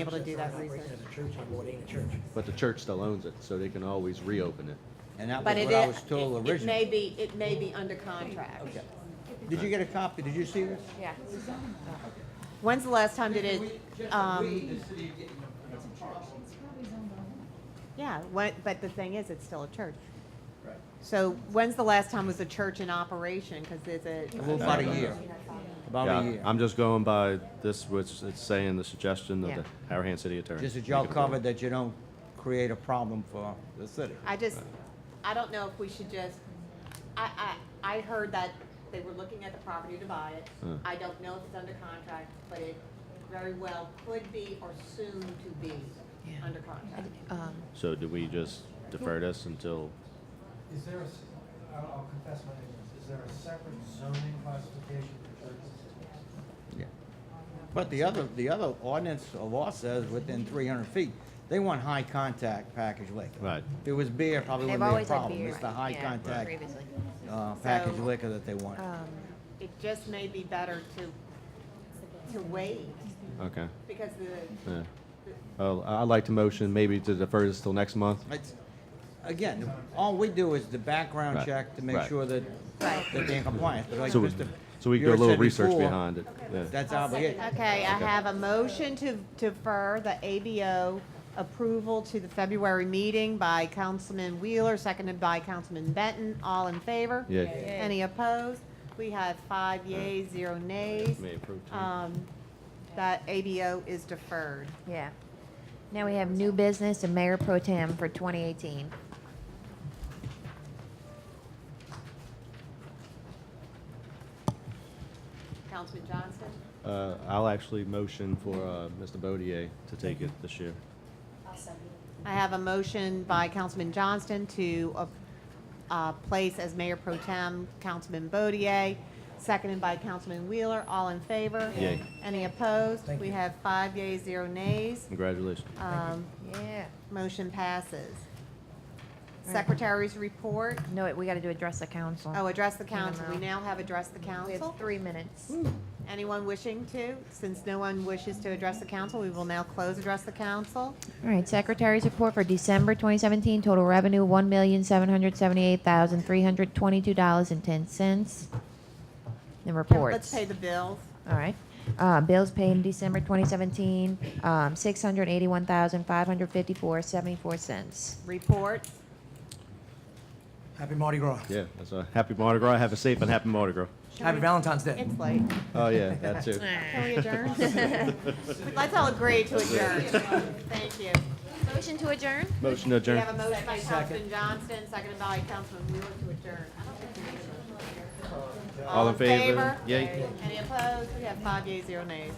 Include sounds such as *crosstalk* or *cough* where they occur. able to do that research. As a church, I'm going in a church. But the church still owns it, so they can always reopen it. And that But was it what I is, was told it may originally. be, it may be under contract. Okay. Did you get a copy? Did you see this? Yeah. When's the last time did it, um, yeah, what, but the thing is, it's still a church. So when's the last time was the church in operation? Cause there's a, About a year. About a Yeah, year. I'm just going by this, which it's saying the suggestion Yeah. of the Harahan City Attorney. Just that y'all covered that you don't create a problem for the city. I just, I don't know if we should just, I, I, I heard that they were looking at the property to buy it. Huh. I don't know if it's under contract, but it very well could be or soon to be under contract. So do we just defer this until, Is there a, s- I'll I'll confess my ignorance, is there a separate zoning classification for churches? Yeah. But the other, the other ordinance or law says within three hundred feet, they want high contact package liquor. Right. If it was beer, probably wouldn't They've be a always had problem. beer. It's the high yeah, contact, Previously. uh, package So- liquor that they want. It just may be better to, to wait, okay, because the, yeah. Oh, I- I'd like to motion maybe to defer this till next month. It's, again, all we do is the background Right, check to make right. sure that, that they're in compliance. But like So we, Mr. so we do a Buick little said research before, behind it, yeah. That's obligation. okay, I have a motion to defer the ABO approval to the February meeting by Councilman Wheeler, seconded by Councilman Benton, all in favor? Yeah. Any opposed? We have five yays, zero nays. May approve tonight. uh, Um, that ABO is deferred. Yeah. Now we have new business and mayor pro tem for 2018. Councilman Johnson? Uh, I'll actually motion for, uh, Mr. Bodier to take it this year. I have a motion by Councilman Johnston to uh, uh, place as Mayor Pro Tem Councilman Bodier, seconded by Councilman Wheeler. All in favor? Yay. Any opposed? Thank We you. have five yeas, zero nays. Congratulations. Um, Yeah. Motion passes. Secretary's report. No, wait, we got to do address the council. Oh, address the council. We know. now have address the We council. have three minutes. Anyone wishing to? Since no one wishes to address the council, we will now close address the council. All right, secretary's report for December 2017, total revenue $1,778,322.10. The reports. Let's pay the bills. All right. Uh, bills paid in December 2017, um, 681,554.74 cents. Reports. Happy Mardi Gras. Yeah, that's a happy Mardi Gras. Have a safe and happy Mardi *laughs* Gras. Happy Valentine's Day. It's late. Oh, yeah, that too. Can we adjourn? *laughs* *laughs* Let's all agree to adjourn. Thank you. Motion to adjourn? Motion to We adjourn. have a motion by Councilman Johnston, seconded by Councilman Wheeler to adjourn. I don't think we need to adjourn. All in favor? Yay. Any opposed? We have five yeas, zero nays.